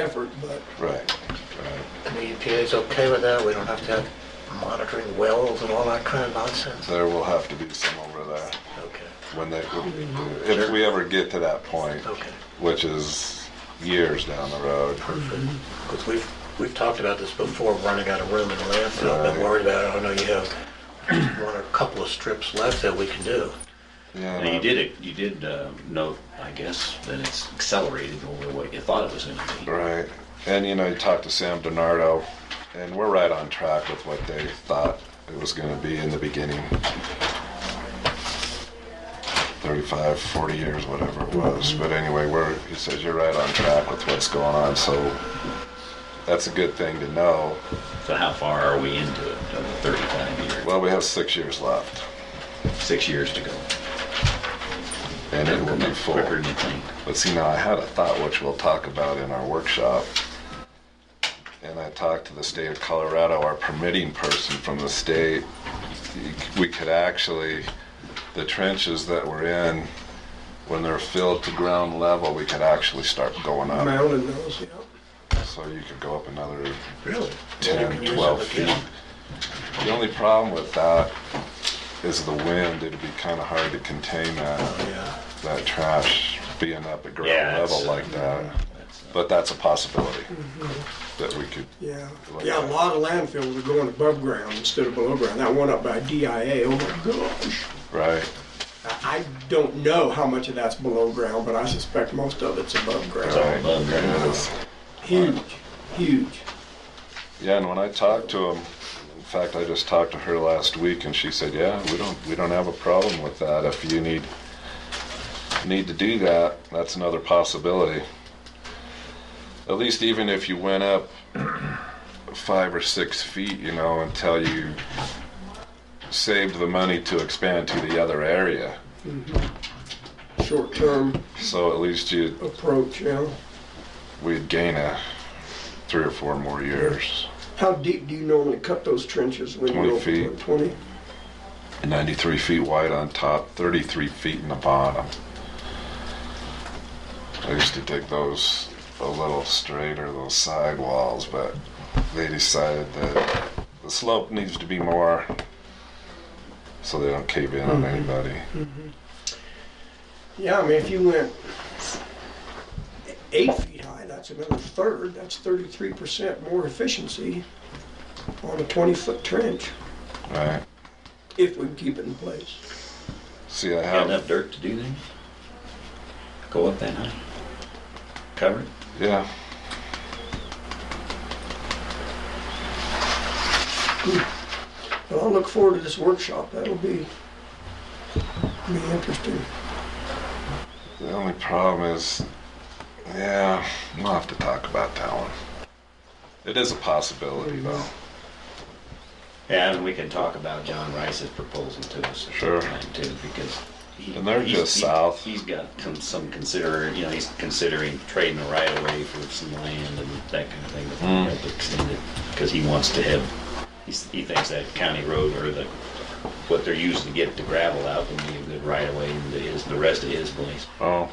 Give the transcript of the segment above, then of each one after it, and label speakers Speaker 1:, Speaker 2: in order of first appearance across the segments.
Speaker 1: effort, but
Speaker 2: Right,
Speaker 3: And the EPA is okay with that? We don't have to have monitoring wells and all that kind of nonsense?
Speaker 2: there will have to be some over there
Speaker 3: Okay,
Speaker 2: when they, if we ever get to that point,
Speaker 3: okay.
Speaker 2: which is years down the road.
Speaker 3: Because we've, we've talked about this before, running out of room in the landfill. I've
Speaker 2: Right.
Speaker 3: been worried about it. I know you have one or a couple of strips left that we can do.
Speaker 2: Yeah,
Speaker 4: Now, you did it, you did uh, note, I guess, that it's accelerated over what you thought it was gonna be.
Speaker 2: Right. And you know, you talked to Sam Donardo, and we're right on track with what they thought it was going to be in the beginning 35, 40 years, whatever it was.
Speaker 4: Mm-hmm.
Speaker 2: But anyway, we're, he says, you're right on track with what's going on. So that's a good thing to know.
Speaker 4: So how far are we into it, of the 35 year,
Speaker 2: Well, we have six years left,
Speaker 4: six years to go?
Speaker 2: and it will be full.
Speaker 4: Quicker than you think.
Speaker 2: But see, now I had a thought which we'll talk about in our workshop. And I talked to the state of Colorado, our permitting person from the state. We could actually, the trenches that we're in, when they're filled to ground level, we could actually start going up.
Speaker 1: Maryland knows, yeah.
Speaker 2: So you could go up another
Speaker 3: Really? You can
Speaker 2: 10,
Speaker 3: use
Speaker 2: 12
Speaker 3: it
Speaker 2: feet.
Speaker 3: again.
Speaker 2: The only problem with that is the wind. It'd be kind of hard to contain that,
Speaker 3: Yeah.
Speaker 2: that trash being up at
Speaker 4: Yeah,
Speaker 2: ground
Speaker 4: it's,
Speaker 2: level
Speaker 4: uh,
Speaker 2: like that.
Speaker 4: That's, uh,
Speaker 2: But that's a possibility that we could.
Speaker 1: Yeah, yeah, a lot of landfills are going above ground instead of below ground. That one up by DIA, oh my gosh.
Speaker 2: Right.
Speaker 1: I I don't know how much of that's below ground, but I suspect most of it's above
Speaker 4: all
Speaker 1: ground.
Speaker 2: right,
Speaker 4: above
Speaker 2: there it
Speaker 4: ground.
Speaker 2: is.
Speaker 1: Huge, huge.
Speaker 2: Yeah, and when I talked to him, in fact, I just talked to her last week, and she said, "Yeah, we don't we don't have a problem with that. If you need need to do that, that's another possibility. At least even if you went up five or six feet, you know, until you saved the money to expand to the other area.
Speaker 1: Short-term
Speaker 2: So at least you
Speaker 1: approach, you know.
Speaker 2: we'd gain a three or four more years.
Speaker 1: How deep do you normally cut those trenches when you
Speaker 2: 20
Speaker 1: go for
Speaker 2: feet.
Speaker 1: twenty?
Speaker 2: 93 feet wide on top, 33 feet in the bottom. I used to dig those a little straighter, those side walls, but they decided that the slope needs to be more so they don't cave in on anybody.
Speaker 1: Yeah, I mean, if you went eight feet high, that's another third, that's thirty-three percent more efficiency on a twenty-foot trench,
Speaker 2: Right?
Speaker 1: if we keep it in place.
Speaker 2: See, I
Speaker 4: Got
Speaker 2: have.
Speaker 4: enough dirt to do that? Go up that high? Cover it?
Speaker 2: Yeah.
Speaker 1: But I'll look forward to this workshop, that'll be, be interesting.
Speaker 2: The only problem is, yeah, we'll have to talk about that one. It is a possibility, though.
Speaker 4: Yeah, and we can talk about John Rice's proposal to us at
Speaker 2: Sure.
Speaker 4: the time too, because. he-
Speaker 2: And they're
Speaker 4: he's-
Speaker 2: just
Speaker 4: he-
Speaker 2: south.
Speaker 4: He's got con- some consider, you know, he's considering trading the right of way for some land and that kind of thing. that
Speaker 2: Hmm.
Speaker 4: might help extend it, Cause he wants to have, he's- he thinks that county road or the, what they're using to get the gravel out would be a good right of way into his, the rest of his place.
Speaker 2: Oh,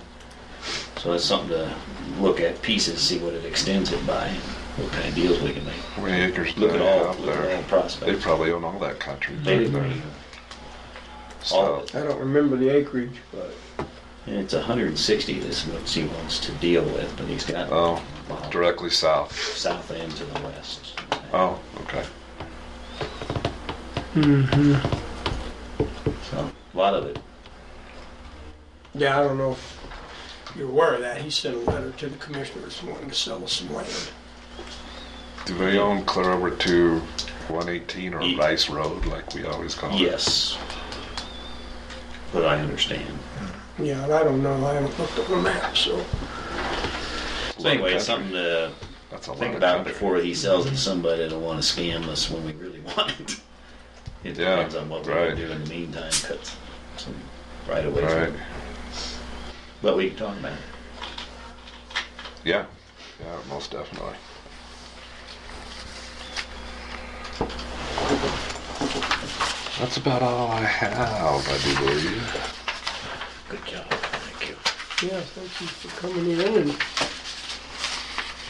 Speaker 4: So it's something to look at pieces, see what it extends it by, what kind of deals we can make.
Speaker 2: how many acres do
Speaker 4: Look
Speaker 2: they
Speaker 4: at all,
Speaker 2: have
Speaker 4: look at all
Speaker 2: there? They
Speaker 4: prospects.
Speaker 2: probably own all that country.
Speaker 4: They
Speaker 2: don't
Speaker 4: didn't- all
Speaker 2: So,
Speaker 4: of
Speaker 1: I don't remember the acreage, but
Speaker 4: And it's 160 that's what he wants to deal with, but he's got
Speaker 2: oh,
Speaker 4: Wow.
Speaker 2: directly south.
Speaker 4: south end to the west.
Speaker 2: Oh, okay.
Speaker 4: So, a lot of it.
Speaker 1: Yeah, I don't know if you're aware of that. He sent a letter to the commissioners wanting to sell us some land.
Speaker 2: Do they own clear over to 118 or
Speaker 4: Ye-
Speaker 2: Rice Road, like we always call it?
Speaker 4: Yes. But I understand.
Speaker 1: Yeah, and I don't know, I haven't looked at the map, so.
Speaker 4: So anyway, it's something to
Speaker 2: That's a lot
Speaker 4: think
Speaker 2: of
Speaker 4: about
Speaker 2: country.
Speaker 4: before he sells it to somebody that'll want to scam us when we really want it. It
Speaker 2: Yeah,
Speaker 4: depends on what we're
Speaker 2: right.
Speaker 4: gonna do in the meantime, cut some right away.
Speaker 2: Right,
Speaker 4: But we can talk about it.
Speaker 2: yeah, yeah, most definitely. That's about all I have, I do believe.
Speaker 4: Good job, thank you.
Speaker 1: Yeah, thank you for coming in and